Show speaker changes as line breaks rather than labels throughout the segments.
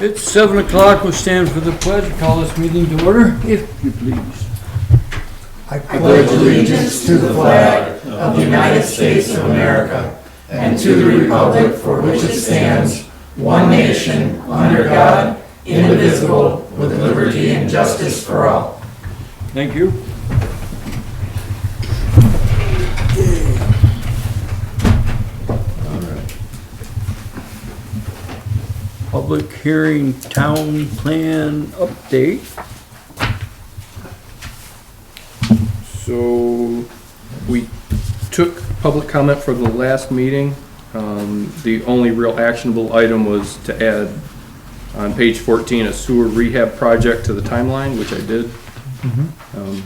It's seven o'clock, we stand for the pledge, call this meeting to order, if you please.
I pledge allegiance to the flag of the United States of America and to the republic for which it stands, one nation, under God, indivisible, with liberty and justice for all.
Thank you. Public hearing, town plan update.
So, we took public comment for the last meeting. Um, the only real actionable item was to add on page fourteen, a sewer rehab project to the timeline, which I did. Um,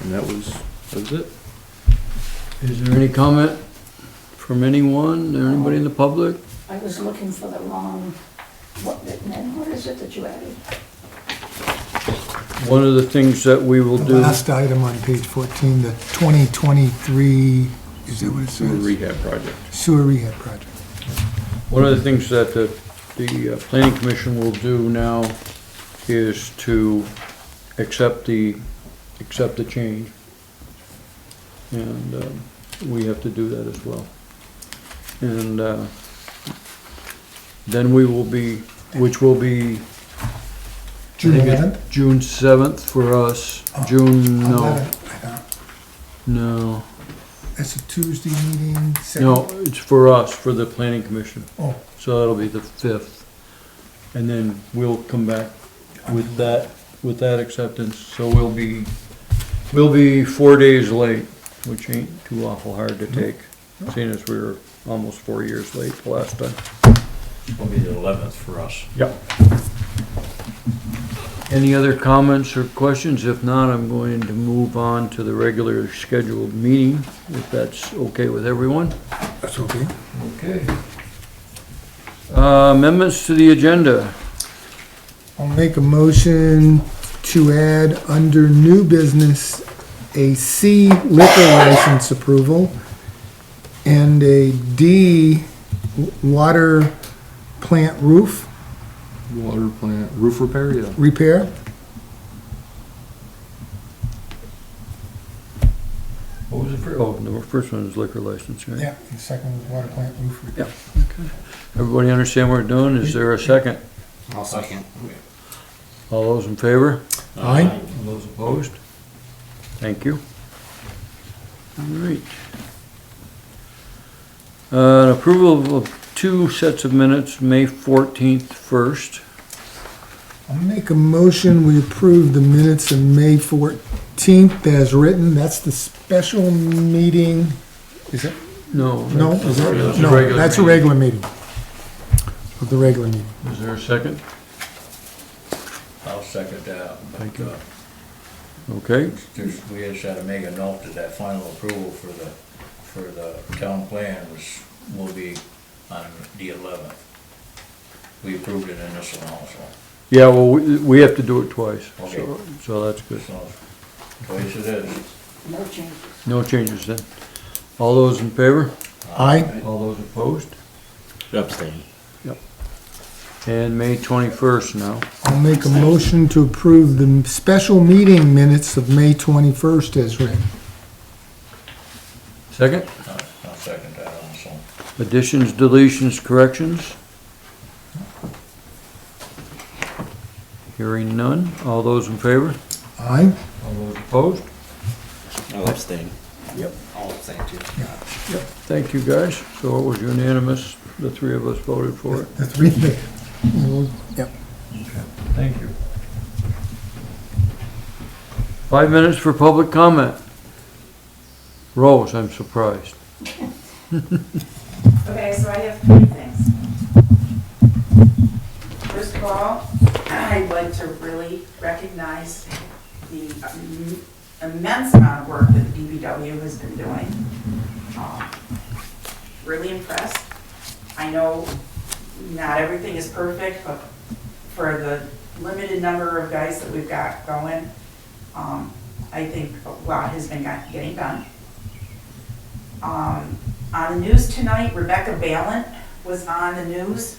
And that was, that was it.
Is there any comment from anyone, or anybody in the public?
I was looking for the wrong, what, then what is it that you added?
One of the things that we will
The
do,
last item on page 14, the 2023, is that what it
Sewer
says?
rehab project.
Sewer rehab project.
one of the things that the, the uh, planning commission will do now is to accept the, accept the change. And, um, we have to do that as well. And, uh, then we will be, which will be
June
I think it-
11th?
June seventh for us,
Oh,
June, no,
11th, I thought.
no,
That's a Tuesday meeting, second?
no, it's for us, for the planning commission.
Oh,
So that'll be the fifth. And then we'll come back with that, with that acceptance. So we'll be, we'll be four days late, which ain't too awful hard
Mm-hmm.
to take, seeing as we were almost four years late the last time.
will be the eleventh for us.
Yep. Any other comments or questions? If not, I'm going to move on to the regular scheduled meeting, if that's okay with everyone.
that's okay.
Okay. Uh, amendments to the agenda.
I'll make a motion to add under new business, a C liquor license approval and a D w- water plant roof
Water plant, roof repair, yeah.
repair.
What was the first? Oh, the first one is liquor license, right?
the second was water plant roof
repair. Everybody understand what we're doing? Is there a second?
I'll second.
All those in favor?
Aye.
All those opposed? Thank you. All right. Uh, approval of two sets of minutes, May fourteenth first.
I'll make a motion, we approve the minutes of May fourteenth as written. That's the special meeting. Is it,
No.
no,
that's-
is
that's
it,
a
no,
regular
that's a
meeting.
regular meeting. Of the regular meeting.
Is there a second?
I'll second that.
Thank you.
Uh,
Okay,
There's, we just had to make a note that that final approval for the, for the town plan was, will be on the eleventh. We approved it in this one also,
yeah, well, we, we have to do it twice, so,
Okay.
so that's good.
so, twice it is.
No changes.
No changes then. All those in favor?
Aye.
All those opposed?
Abstain.
And May twenty-first now.
I'll make a motion to approve the special meeting minutes of May 21st as written.
Second,
I'll I'll second that also.
additions, deletions, corrections? Hearing none. All those in favor?
Aye?
All those opposed?
I'll abstain.
Thank you, guys. So it was unanimous. The three of us voted for it.
The three, that- yep.
Thank you. Five minutes for public comment. Rose, I'm surprised.
Okay, so I have three things. First of all, I'd like to really recognize the im- immense amount of work that the DPW has been doing. Um, Really impressed. I know not everything is perfect, but for the limited number of guys that we've got going, um, I think a lot has been got- getting done. Um, on the news tonight, Rebecca Ballant was on the news